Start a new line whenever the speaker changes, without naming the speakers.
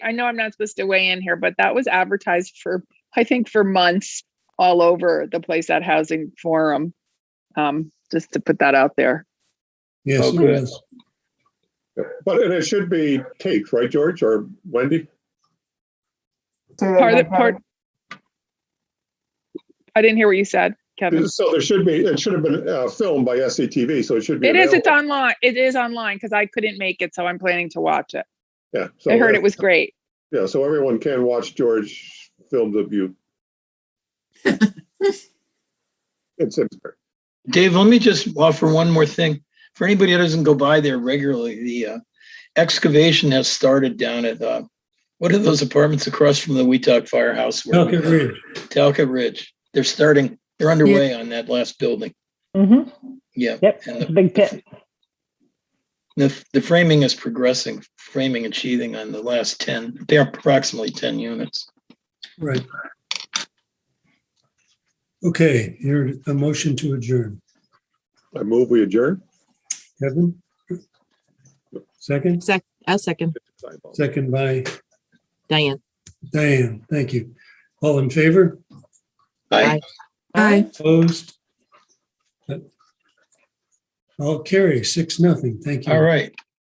I know I'm not supposed to weigh in here, but that was advertised for, I think, for months all over the place at Housing Forum. Um, just to put that out there.
Yes,
Oh,
it
good.
was.
But, and it should be taped, right, George or Wendy?
Say that
Part of
again,
the part. I didn't hear what you said, Kevin.
So there should be, it should have been uh, filmed by SCTV, so it should be.
It is. It's
available.
online. It is online because I couldn't make it, so I'm planning to watch it.
Yeah. so
I heard
if-
it was great.
Yeah, so everyone can watch George film the view. It's, it's-
Dave, let me just offer one more thing. For anybody that doesn't go by there regularly, the uh, excavation has started down at, uh, what are those apartments across from the Weetach Firehouse? where we-
Falcon Ridge.
Talcott Ridge. They're starting, they're underway on that last building.
Mm-hmm.
Yeah.
Yep.
And
It's a
the-
big pit.
the, the framing is progressing, framing and sheathing on the last 10, they're approximately 10 units.
Right. Okay, here, a motion to adjourn.
I move we adjourn.
Kevin? Second,
Sec, I'll second.
second by
Diane.
Diane. Thank you. All in favor?
Bye.
Bye. Aye.
Opposed? All carry, six, nothing. Thank you.
All right.